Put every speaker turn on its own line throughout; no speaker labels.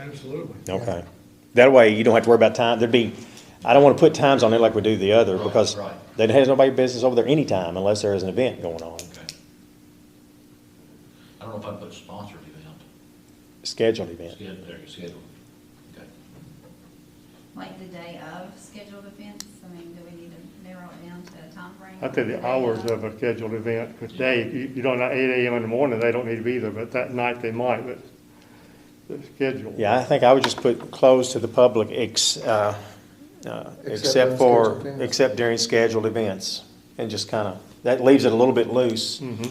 Absolutely.
Okay. That way you don't have to worry about time. There'd be, I don't want to put times on there like we do the other because
right.
that has nobody business over there anytime unless there is an event going on.
Okay. I don't know if I put sponsored event,
Scheduled event.
scheduled, there, scheduled, okay.
like the day of scheduled events? I mean, do we need to narrow it down to a timeframe?
I think the hours of a scheduled event, because they, you you don't, at eight AM in the morning, they don't need to be there, but that night they might, but the schedule.
Yeah, I think I would just put closed to the public ex, uh, uh, except
during
for,
scheduled events.
except during scheduled events. And just kind of, that leaves it a little bit loose.
Mm-hmm.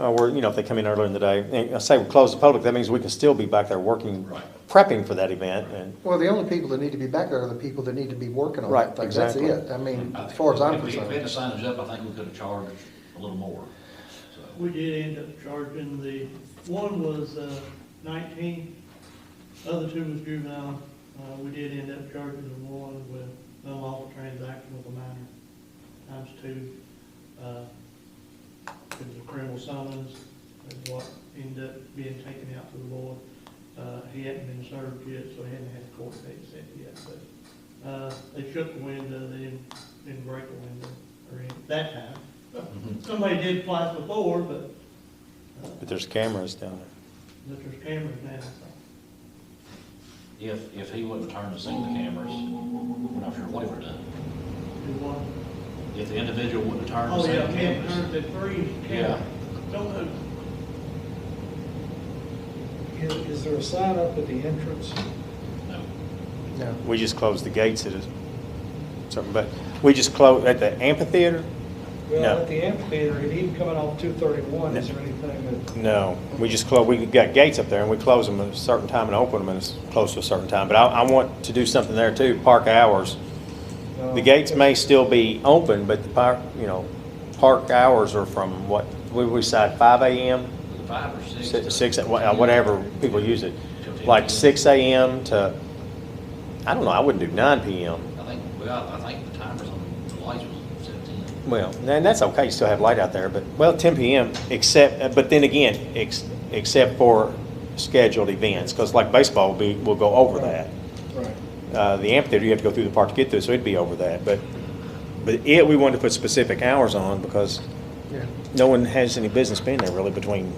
Uh, where, you know, if they come in earlier in the day, and I say we close the public, that means we can still be back there working,
Right.
prepping for that event and
Well, the only people that need to be back there are the people that need to be working on
Right,
that thing. That's
exactly.
it. I mean, as far as I'm
If we- If we had
concerned.
to sign us up, I think we could have charged a little more, so.
We did end up charging the, one was uh, nineteen, other two was juvenile. Uh, we did end up charging the one with unlawful transaction with a minor, times two. Uh, It was a criminal summons, and what ended up being taken out to the board. Uh, he hadn't been served yet, so he hadn't had a court date set yet, but, uh, they shook the window, they didn't, didn't break the window, or any, that time.
Mm-hmm.
Somebody did twice before, but uh,
But there's cameras down
but there's cameras now.
If, if he wouldn't turn to see the cameras, we're not sure what he would have done.
Do what?
If the individual wouldn't turn to
Oh,
see
yeah,
the
cameras,
cameras.
the three
Yeah.
cameras. Don't move.
Is, is there a sign up at the entrance?
No.
No.
there. We just closed the gates at a, something, but we just closed at the amphitheater?
Well,
No.
at the amphitheater, and even coming off two thirty-one, is
No.
there anything that,
No, we just closed, we got gates up there and we close them at a certain time and open them at a s- close to a certain time. But I, I want to do something there too, park hours.
no?
The gates may still be open, but the park, you know, park hours are from what, we we decide five AM?
Five or six. to-
Six, six, uh, wha- whatever people use it,
Till ten
like
p.m.
six AM to, I don't know, I wouldn't do nine PM.
I think, well, I think the timers on the lights was seventeen.
Well, and that's okay, you still have light out there, but, well, ten PM, except, uh, but then again, ex, except for scheduled events, because like baseball will be, will go over that.
Right.
Uh, the amphitheater, you have to go through the park to get through, so it'd be over that, but, but it, we wanted to put specific hours on because
Yeah.
no one has any business being there really between,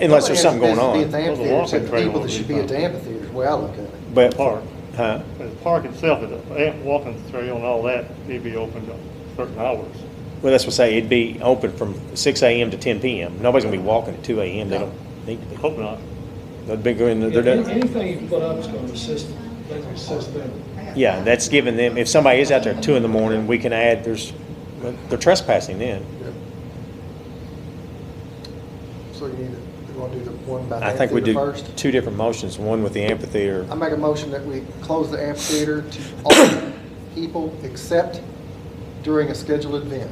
unless there's something going
Nobody has
on.
Well,
business
the
to be at the amphitheater,
walking trail will be fine.
except the people that should be at the amphitheater is where I look at it.
But,
Park.
huh?
But the park itself, the amp walking trail and all that, it'd be open to certain hours.
Well, that's what I say, it'd be open from six AM to ten PM. Nobody's gonna be walking at two AM, they
No.
don't need to be.
Hope not.
They'd be going, they're
Any-
done.
Anything you put up is gonna assist, that's gonna assist them.
Yeah, that's giving them, if somebody is out there at two in the morning, we can add, there's, they're trespassing then.
Yeah. So you need to, you want to do the one by the
I think we
amphitheater
do
first?
two different motions, one with the amphitheater.
I make a motion that we close the amphitheater to all people except during a scheduled event.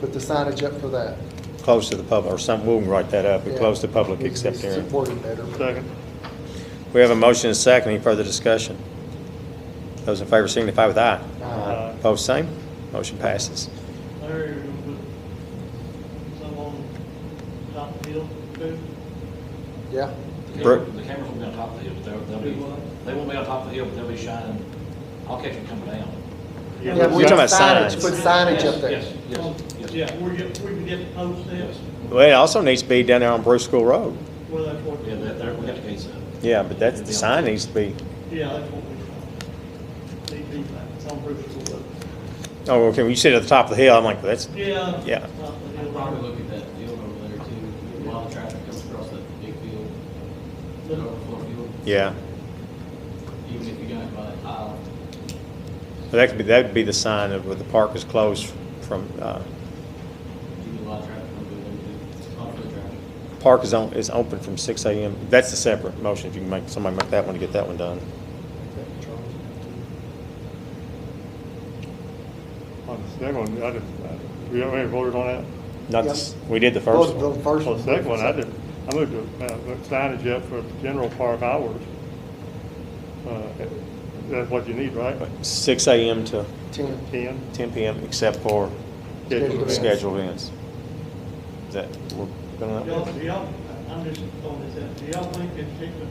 Put the signage up for that.
close to the public, or something, we can write that up, we
Yeah.
close to public
Needs to
except
be
during.
Supported better.
Second.
We have a motion and a second, any further discussion? Those in favor signify with aye.
Uh,
Aye.
Opposed, same, motion passes.
Larry, you're gonna put some on top of the hill, too.
Yeah.
The
Bro-
camera- the cameras will be on top of the hill, but they'll, they'll
Do
be,
what?
they won't be on top of the hill, but they'll be shining. I'll catch them coming down.
Yeah,
Yeah,
but
we
You're talking about
signage,
signs.
Put signage up
Yes,
there.
Yes, yes, yes.
Um, Yeah, we're, get- we can get the post there,
Yes.
Well, it also needs to be down there on Bruce School Road.
well, that's what,
Yeah, that, there, we got the gates up.
uh,
Yeah, but that's, the sign needs to be,
yeah, that's what we, they do that, it's on Bruce's Road.
oh, okay, when you sit at the top of the hill, I'm like, that's,
Yeah.
Yeah.
top of the hill.
I'd probably look at that deal over there too, while the traffic comes across that big field, that overflow field,
yeah,
even if you got by a tile.
But that could be, that would be the sign of where the park is closed from, uh,
you get a lot of traffic from the building, conflict traffic.
park is on, is open from six AM. That's the separate motion, if you can make, somebody make that one to get that one done.
On the second one, I just, uh, we already voted on that?
Not, this- we did the first
Those-
one.
those first
Well,
ones.
the second one, I did, I moved to, uh, put signage up for general park hours. Uh, That's what you need, right?
Six AM to
Ten.
Ten?
ten PM, except for
Scheduled
Scheduled
events.
scheduled events. Is that, we're gonna,
Y'all, y'all, I'm just throwing this out, do y'all think it's particular